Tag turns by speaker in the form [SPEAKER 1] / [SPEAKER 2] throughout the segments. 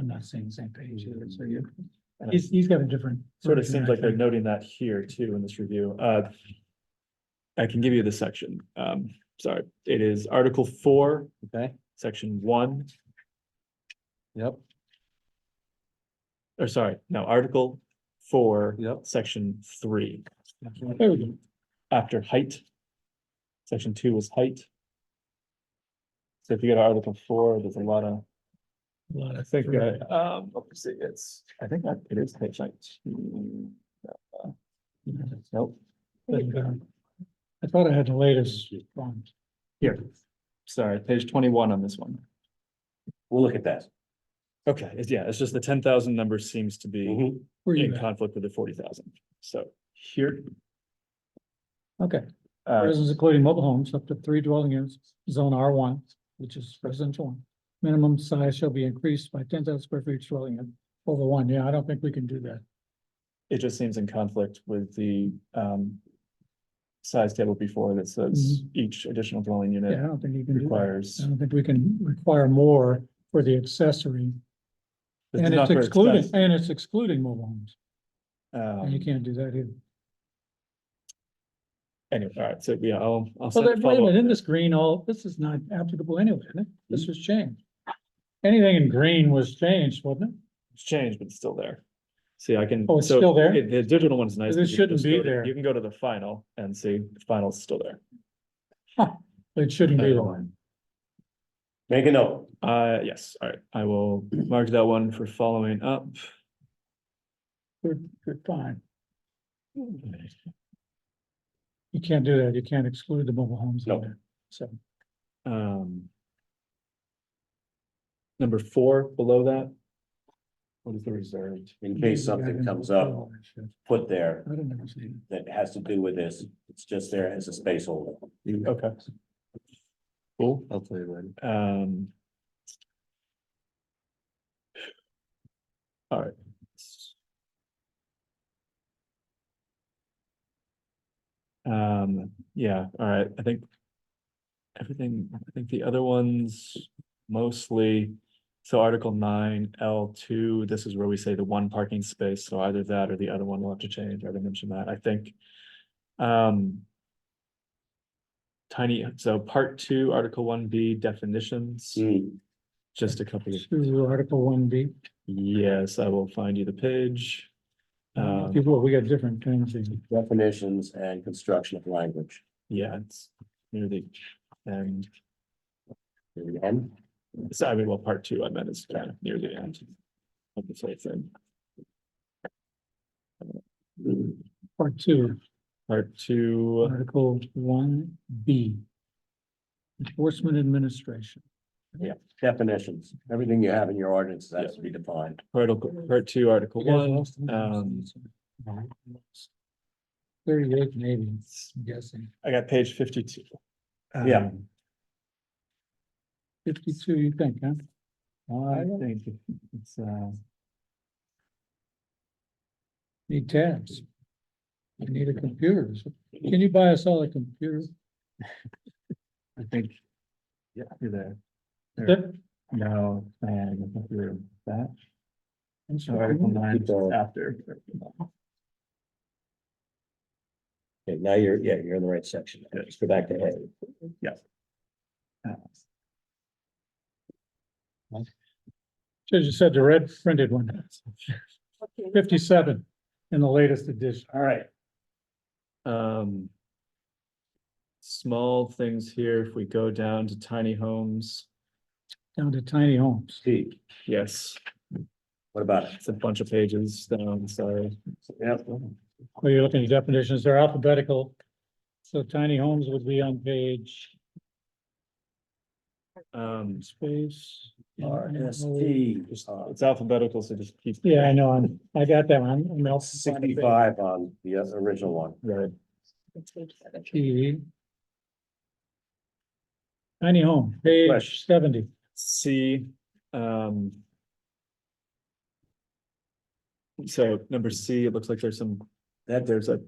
[SPEAKER 1] I'm not saying the same page either, so
[SPEAKER 2] Mm.
[SPEAKER 1] you,
[SPEAKER 2] And
[SPEAKER 1] he's, he's got a different.
[SPEAKER 2] Sort of
[SPEAKER 1] version,
[SPEAKER 2] seems
[SPEAKER 1] I
[SPEAKER 2] like they're
[SPEAKER 1] think.
[SPEAKER 2] noting that here too in this review. Uh. I can give you the section. Um, sorry, it is Article four,
[SPEAKER 3] Okay,
[SPEAKER 2] section one,
[SPEAKER 3] yep,
[SPEAKER 2] or sorry, no, Article four,
[SPEAKER 3] yep.
[SPEAKER 2] section three,
[SPEAKER 1] There we go.
[SPEAKER 2] after height. Section two was height. So if you go to Article four, there's a lot of.
[SPEAKER 1] A lot
[SPEAKER 2] I
[SPEAKER 1] of-
[SPEAKER 2] think, uh, um, let's see, it's, I think that it is page nineteen. Nope,
[SPEAKER 1] But, uh, I thought I had the latest one.
[SPEAKER 2] here, sorry, page twenty-one on this one.
[SPEAKER 3] We'll look at that.
[SPEAKER 2] Okay, it's, yeah, it's just the ten thousand number seems to be
[SPEAKER 3] Mhm.
[SPEAKER 1] Where
[SPEAKER 2] in
[SPEAKER 1] you at?
[SPEAKER 2] conflict with the forty thousand, so here.
[SPEAKER 1] Okay,
[SPEAKER 2] Uh,
[SPEAKER 1] residents including mobile homes up to three dwelling units, zone R one, which is residential one. Minimum size shall be increased by ten thousand square feet each dwelling unit over one. Yeah, I don't think we can do that.
[SPEAKER 2] it just seems in conflict with the, um. Size table before that says each additional dwelling
[SPEAKER 1] Mm-hmm. Yeah, I
[SPEAKER 2] unit
[SPEAKER 1] don't think you can do that.
[SPEAKER 2] requires.
[SPEAKER 1] I don't think we can require more for the accessory.
[SPEAKER 2] This is
[SPEAKER 1] And
[SPEAKER 2] not
[SPEAKER 1] it's
[SPEAKER 2] for
[SPEAKER 1] excluding,
[SPEAKER 2] expense,
[SPEAKER 1] and it's excluding mobile homes. And you
[SPEAKER 2] Um,
[SPEAKER 1] can't do that either.
[SPEAKER 2] anyway, all right, so yeah, I'll, I'll
[SPEAKER 1] Well,
[SPEAKER 2] send a
[SPEAKER 1] then, wait a minute,
[SPEAKER 2] follow-up.
[SPEAKER 1] in this green, all, this is not applicable anyway, isn't it?
[SPEAKER 3] Hmm?
[SPEAKER 1] This was changed. Anything in green was changed, wasn't it?
[SPEAKER 2] It's changed, but it's still there. See, I can.
[SPEAKER 1] Oh, it's
[SPEAKER 2] so
[SPEAKER 1] still there?
[SPEAKER 2] it- The digital one's nice.
[SPEAKER 1] This
[SPEAKER 2] because you can
[SPEAKER 1] shouldn't
[SPEAKER 2] just
[SPEAKER 1] be
[SPEAKER 2] go to-
[SPEAKER 1] there.
[SPEAKER 2] You can go to the final and see, the final's still there.
[SPEAKER 1] It shouldn't
[SPEAKER 3] Uh,
[SPEAKER 1] be.
[SPEAKER 3] Make a note.
[SPEAKER 2] Uh, yes, all right, I will mark that one for following up.
[SPEAKER 1] Good, good find. You can't do that. You can't exclude the mobile homes. in
[SPEAKER 3] No.
[SPEAKER 1] there. So,
[SPEAKER 2] Um. Number four below that. What is the reserved?
[SPEAKER 3] In case something comes up, put there
[SPEAKER 1] I don't ever see it.
[SPEAKER 3] that has to do with this. It's just there as a space holder.
[SPEAKER 2] Okay. Cool,
[SPEAKER 3] I'll tell you later.
[SPEAKER 2] um. All right. Um, yeah, all right, I think. Everything, I think the other ones mostly, so Article nine, L two, this is where we say the one parking space, so either that or the other one will have to change, I already mentioned that, I think. Um. Tiny, so part two, Article one B definitions,
[SPEAKER 3] Mm.
[SPEAKER 2] just a couple of,
[SPEAKER 1] To Article one B,
[SPEAKER 2] yes, I will find you the page.
[SPEAKER 1] Mm,
[SPEAKER 3] Uh,
[SPEAKER 2] Um,
[SPEAKER 1] people, we got different things. in-
[SPEAKER 3] definitions and construction of language.
[SPEAKER 2] yeah, it's near the end.
[SPEAKER 3] Here we go.
[SPEAKER 2] So I mean, well, part two, I meant is kind of near the end. of this whole thing.
[SPEAKER 1] Part two,
[SPEAKER 2] Part two,
[SPEAKER 1] Article one B. Enforcement Administration.
[SPEAKER 3] Definitions, everything you have in your ordinance has to be defined.
[SPEAKER 2] article, part two, article
[SPEAKER 1] You guys
[SPEAKER 2] one,
[SPEAKER 1] lost them?
[SPEAKER 2] um,
[SPEAKER 1] Thirty-eight maybe, I'm guessing.
[SPEAKER 2] I got page fifty-two.
[SPEAKER 3] Yeah.
[SPEAKER 2] Um,
[SPEAKER 1] Fifty-two, you think, huh?
[SPEAKER 2] I think it's, uh,
[SPEAKER 1] Need tabs. You need a computer. So Can you buy us all a computer?
[SPEAKER 2] I think, yeah, you're there. There.
[SPEAKER 1] Yep.
[SPEAKER 2] No, and I think you're that.
[SPEAKER 1] I'm
[SPEAKER 2] So Article
[SPEAKER 1] sorry.
[SPEAKER 2] nine is
[SPEAKER 3] Keep going.
[SPEAKER 2] after.
[SPEAKER 3] Okay, now you're, yeah, you're in the right section. Let's go back to A.
[SPEAKER 1] Should've just said the red printed one. Fifty-seven in the latest edition.
[SPEAKER 3] All right.
[SPEAKER 2] Um. Small things here, if we go down to tiny homes,
[SPEAKER 1] Down to tiny homes.
[SPEAKER 3] T,
[SPEAKER 2] yes,
[SPEAKER 3] what about it?
[SPEAKER 2] it's a bunch of pages down, sorry.
[SPEAKER 3] Yep.
[SPEAKER 1] Well, you're looking at definitions, they're alphabetical. So tiny homes would be on page
[SPEAKER 2] Um,
[SPEAKER 1] space.
[SPEAKER 3] R S T,
[SPEAKER 2] just- uh, it's alphabetical, so just keep.
[SPEAKER 1] Yeah, I know, I'm, I got that one. I'm also-
[SPEAKER 3] sixty-five on the other- original one.
[SPEAKER 2] Right,
[SPEAKER 1] T. Tiny home, page
[SPEAKER 3] Question.
[SPEAKER 1] seventy.
[SPEAKER 2] C, um. So number C, it looks like there's some,
[SPEAKER 3] That
[SPEAKER 2] there's a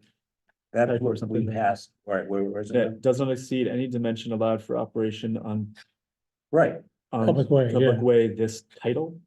[SPEAKER 3] That
[SPEAKER 2] Type or
[SPEAKER 3] was
[SPEAKER 2] something.
[SPEAKER 3] we passed, right, where, where's it?
[SPEAKER 2] that does not exceed any dimension allowed for operation on
[SPEAKER 3] Right,
[SPEAKER 2] on
[SPEAKER 1] Public way, yeah.
[SPEAKER 2] Public way, this title,